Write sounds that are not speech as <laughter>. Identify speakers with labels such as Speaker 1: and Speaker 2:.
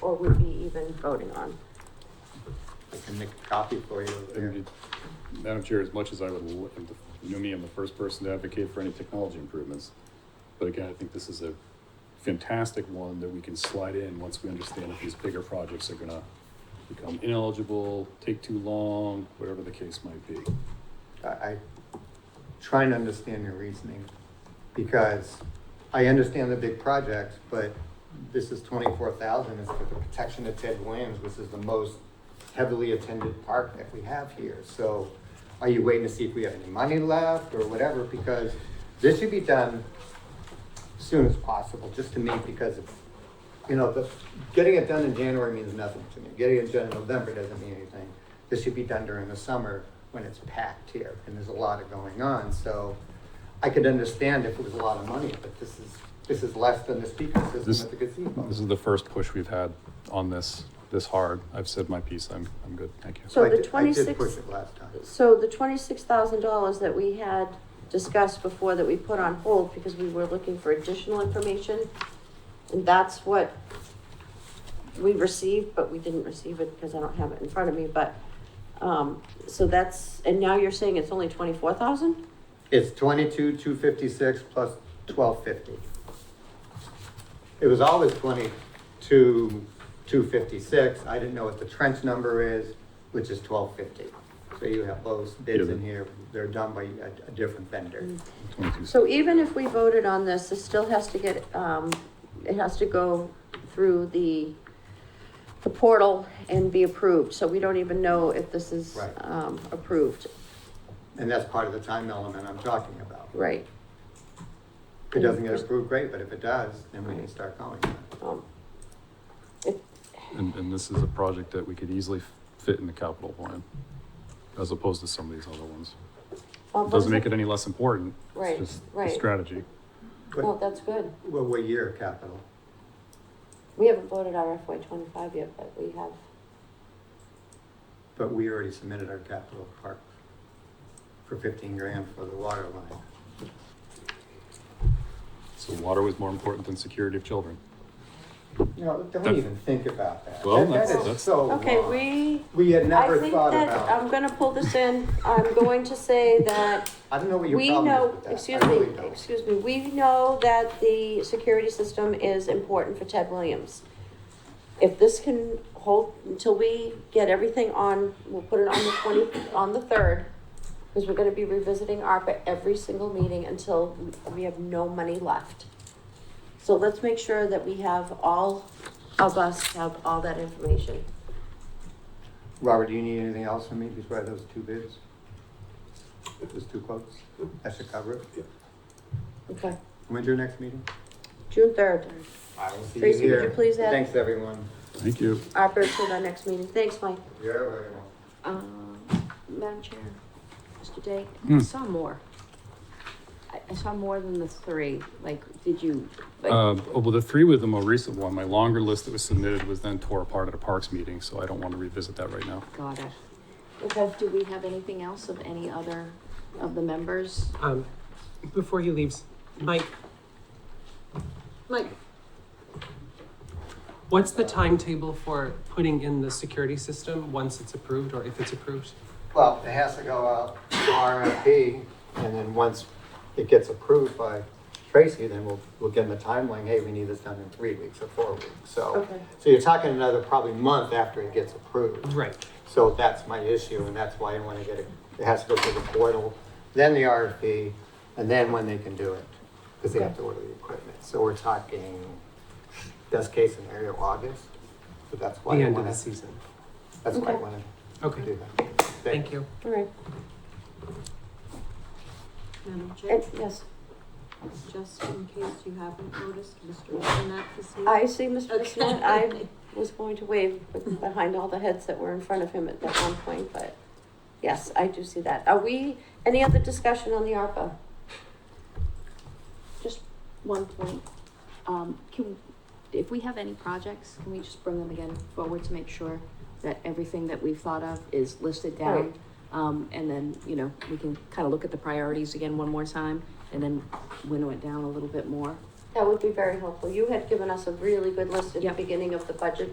Speaker 1: or would be even voting on.
Speaker 2: I can make a copy for you.
Speaker 3: And Madam Chair, as much as I would, l- and you know me, I'm the first person to advocate for any technology improvements. But again, I think this is a fantastic one that we can slide in once we understand if these bigger projects are gonna become ineligible, take too long, whatever the case might be.
Speaker 2: I, I try and understand your reasoning, because I understand the big projects, but this is twenty-four thousand, is for the protection of Ted Williams, which is the most heavily attended park that we have here, so are you waiting to see if we have any money left or whatever, because this should be done as soon as possible, just to me, because it's, you know, the, getting it done in January means nothing to me. Getting it done in November doesn't mean anything. This should be done during the summer when it's packed here and there's a lot of going on, so I could understand if it was a lot of money, but this is, this is less than the speaker
Speaker 3: This-
Speaker 2: system at the gazebo.
Speaker 3: This is the first push we've had on this, this hard. I've said my piece. I'm, I'm good. Thank you.
Speaker 1: So
Speaker 2: I
Speaker 1: the
Speaker 2: did- I did
Speaker 1: 26
Speaker 2: push it last time.
Speaker 1: So the twenty-six thousand dollars that we had discussed before that we put on hold because we were looking for additional information, and that's what we received, but we didn't receive it because I don't have it in front of me, but, um, so that's, and now you're saying it's only twenty-four thousand?
Speaker 2: It's twenty-two, two fifty-six plus twelve fifty. It was always twenty-two, two fifty-six, I didn't know what the trench number is, which is twelve fifty. So you have those bids
Speaker 3: Yeah.
Speaker 2: in here, they're done by a, a different vendor.
Speaker 1: Mm.
Speaker 3: Twenty-two.
Speaker 1: So even if we voted on this, it still has to get, um, it has to go through the, the portal and be approved, so we don't even know if this is,
Speaker 2: Right.
Speaker 1: um, approved,
Speaker 2: And that's part of the time element I'm talking about.
Speaker 1: right?
Speaker 2: If it doesn't get approved, great, but if it does, then we can start going.
Speaker 1: Um,
Speaker 3: And, and this is a project that we could easily f- fit in the capital plan as opposed to some of these other ones.
Speaker 1: well,
Speaker 3: Doesn't make it any less important. It's
Speaker 1: Right,
Speaker 3: just the
Speaker 1: right.
Speaker 3: Strategy.
Speaker 1: Well,
Speaker 2: What,
Speaker 1: that's good,
Speaker 2: what what year of capital?
Speaker 1: we haven't voted our FY twenty-five yet, but we have,
Speaker 2: But we already submitted our capital part for fifteen grand for the water line.
Speaker 3: So water was more important than security of children.
Speaker 2: No, don't
Speaker 3: That's-
Speaker 2: even think about that.
Speaker 3: Well,
Speaker 2: That-
Speaker 3: that's-
Speaker 2: that is
Speaker 3: that's-
Speaker 2: so
Speaker 1: okay,
Speaker 2: wrong.
Speaker 1: we,
Speaker 2: We had
Speaker 1: I
Speaker 2: Oh, never
Speaker 1: think
Speaker 2: thought
Speaker 1: that, um,
Speaker 2: about,
Speaker 1: I'm gonna pull this in, I'm going to say that
Speaker 2: I don't know what your
Speaker 1: We
Speaker 2: problem is
Speaker 1: know,
Speaker 2: with that. I
Speaker 1: excuse
Speaker 2: really
Speaker 1: me,
Speaker 2: don't.
Speaker 1: excuse me, we know that the security system is important for Ted Williams. If this can hold until we get everything on, we'll put it on the twenty, on the third, because we're gonna be revisiting ARPA every single meeting until we- we have no money left. So let's make sure that we have all of us have all that information.
Speaker 2: Robert, do you need anything else from me besides those two bids? Those two quotes? That should cover it.
Speaker 1: Okay,
Speaker 2: When's your next meeting?
Speaker 1: June third,
Speaker 2: I will see
Speaker 1: Tracy, would you please add-
Speaker 2: Thanks, everyone.
Speaker 3: Thank you.
Speaker 1: ARPA till our next meeting, thanks, Mike.
Speaker 2: You're very welcome.
Speaker 4: Um, Madam Chair, Mr. Day,
Speaker 3: Hmm.
Speaker 4: I saw more. I, I saw more than the three, like, did you, like,
Speaker 3: Um, oh, well, the three with the more recent one, my longer list that was submitted was then tore apart at a parks meeting, so I don't want to revisit that right now.
Speaker 4: got it? Okay, do we have anything else of any other of the members?
Speaker 5: Um, before he leaves, Mike,
Speaker 4: Like,
Speaker 5: what's the timetable for putting in the security system once it's approved or if it's approved?
Speaker 2: Well, it has to go out to RFP, and then once it gets approved by Tracy, then we'll, we'll give them a timeline, hey, we need this done in three weeks or four weeks, so.
Speaker 1: Okay.
Speaker 2: So you're talking another probably month after it gets approved.
Speaker 5: Right.
Speaker 2: So that's my issue, and that's why I wanna get it, it has to go through the portal, then the RFP, and then when they can do it, because they have to order the equipment. So we're talking, best case scenario, August, so that's
Speaker 5: The
Speaker 2: why I
Speaker 5: end of the
Speaker 2: wanna,
Speaker 5: season.
Speaker 2: that's why I
Speaker 1: Okay.
Speaker 2: wanna
Speaker 5: Okay,
Speaker 2: do that.
Speaker 5: thank you.
Speaker 1: All right,
Speaker 6: Madam Chair,
Speaker 1: and, yes,
Speaker 6: just in case you haven't noticed, Mr. Sinat is here.
Speaker 1: I see, Mr.
Speaker 6: Okay.
Speaker 1: Smith, <laughs> I was going to wave with- behind all the heads that were in front of him at that one point, but yes, I do see that. Are we, any other discussion on the ARPA?
Speaker 4: just one point, um, can, if we have any projects, can we just bring them again forward to make sure that everything that we've thought of is listed down?
Speaker 1: Right.
Speaker 4: Um, and then, you know, we can kind of look at the priorities again one more time and then winnow it down a little bit more.
Speaker 1: That would be very helpful. You had given us a really good list at the
Speaker 4: Yep.
Speaker 1: beginning of the budget